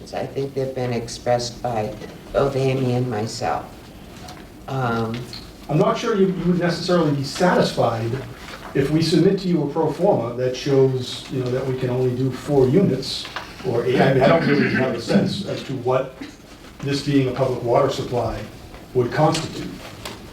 concerns. I think they've been expressed by both Amy and myself. Um, I'm not sure you you would necessarily be satisfied if we submit to you a pro forma that shows, you know, that we can only do four units or eight. I mean, I don't really have a sense as to what this being a public water supply would constitute.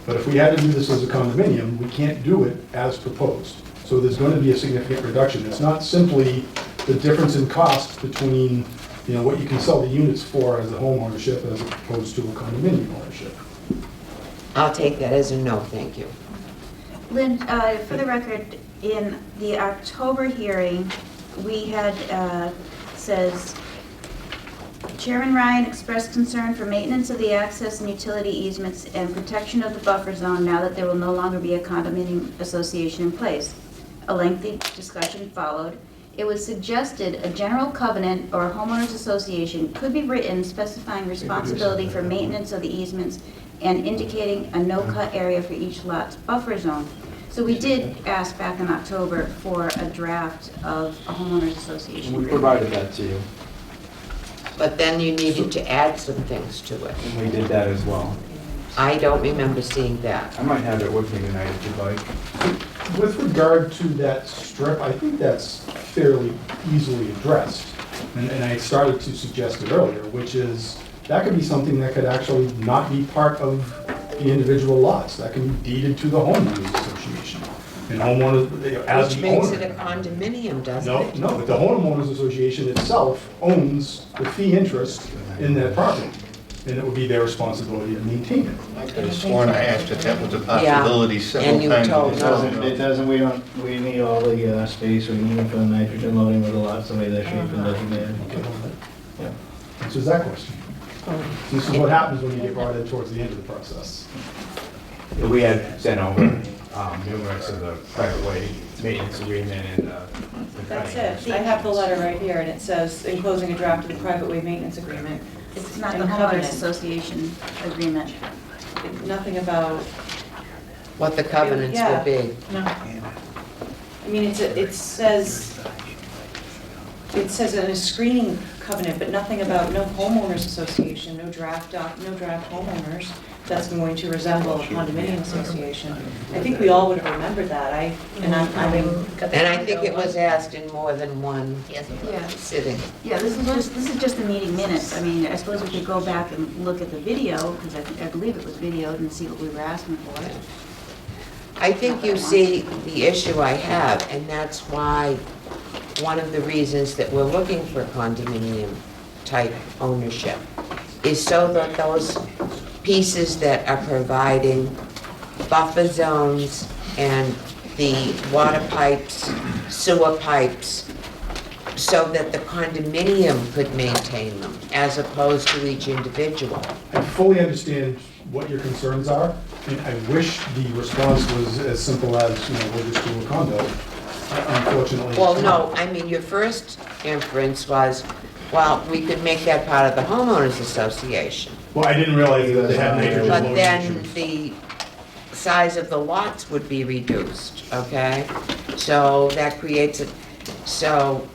But if we had to do this as a condominium, we can't do it as proposed. So there's going to be a significant reduction. It's not simply the difference in cost between, you know, what you can sell the units for as a home ownership as opposed to a condominium ownership. I'll take that as a no, thank you. Lynn, uh, for the record, in the October hearing, we had, uh, says, Chairman Ryan expressed concern for maintenance of the access and utility easements and protection of the buffer zone now that there will no longer be a condominium association in place. A lengthy discussion followed. It was suggested a general covenant or homeowners association could be written specifying responsibility for maintenance of the easements and indicating a no-cut area for each lot's buffer zone. So we did ask back in October for a draft of a homeowners association. We agreement. provided that to you, But then you needed to add some things to it. and we did that as well. I don't remember seeing that. I might have it with me tonight if you'd like. With regard to that strip, I think that's fairly easily addressed. And and I started to suggest it earlier, which is, that could be something that could actually not be part of the individual lots. That can be deeded to the homeowners association. And homeowners, they- as Which the makes it a owner. condominium, doesn't No, it? no, the homeowners association itself owns the fee interest in that property. And it would be their responsibility to maintain it. I could have sworn I asked if that was a possibility and you several told times. and it It no. wasn't. doesn't, it doesn't, we don't, we need all the uh, space we need for the nitrogen loading with the lots, the way they're shaped and designated. Yeah. Answers that question. This is what happens when you get brought in towards the end of the process. We had sent over um, numerous of the private way maintenance agreement and uh, the. That's it. I have the letter right here, and it says enclosing a draft of the private way maintenance agreement. It's not the And homeowners covenant. association agreement. Nothing about, What the covenants would be. no. I mean, it's, a- it says, it says in a screening covenant, but nothing about no homeowners association, no draft, doc- no draft homeowners that's going to resemble a condominium association. I think we all would have remembered that, I, and I'm, I'm And I think it was asked in more than one Yeah. sitting. Yeah, this is just, this is just the meeting minutes. I mean, I suppose we could go back and look at the video, because I I believe it was videoed, and see what we were asking for. I think you see the issue I have, and that's why, one of the reasons that we're looking for condominium-type ownership is so that those pieces that are providing buffer zones and the water pipes, sewer pipes, so that the condominium could maintain them, as opposed to each individual. I fully understand what your concerns are, and I wish the response was as simple as, you know, we'll just do a condo. Unfortunately. it's Well, not. no, I mean, your first inference was, well, we could make that part of the homeowners association. Well, I didn't realize that they had nitrogen But loading then issues. the size of the lots would be reduced, okay? So that creates a, so,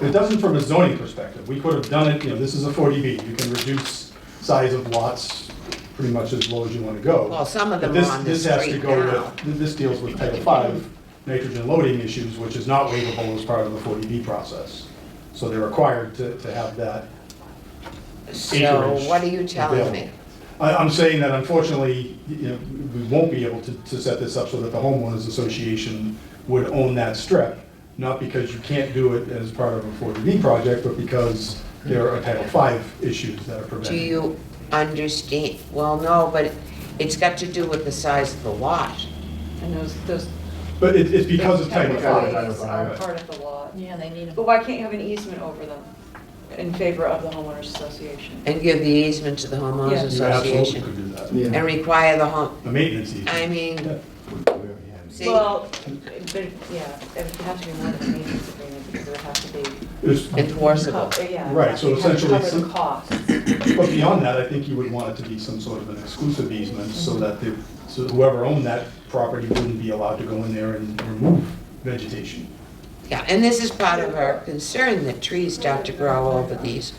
It doesn't from a zoning perspective. We could have done it, you know, this is a 40B. You can reduce size of lots pretty much as low as you want to go. well, some of But them are this, on the this has to street go now. with, this deals with Title V, nitrogen loading issues, which is not waivable as part of the 40B process. So they're required to, to have that. So acreage what are you telling me? available. I, I'm saying that unfortunately, you know, we won't be able to, to set this up so that the homeowners association would own that strip, not because you can't do it as part of a 40B project, but because there are Title V issues that are Do preventing. it. you understand? Well, no, but it's got to do with the size of the lot. And those, those But it, it's because of Title V. categories are part of the law. Yeah, they need But why can't you have an easement over them in favor of the homeowners association? And give the easement to the homeowners Yeah. You absolutely association. could do that. Yeah. And require the home, A maintenance easement. I mean, see, Well, but, yeah, it would have to be more than a maintenance agreement because it would have to be. It's- enforceable. co- Yeah. it would Right, have so to cover essentially the some- cost. But beyond that, I think you would want it to be some sort of an exclusive easement so that the, so whoever owned that property wouldn't be allowed to go in there and remove vegetation. Yeah, and this is part of our concern, that trees start to grow over these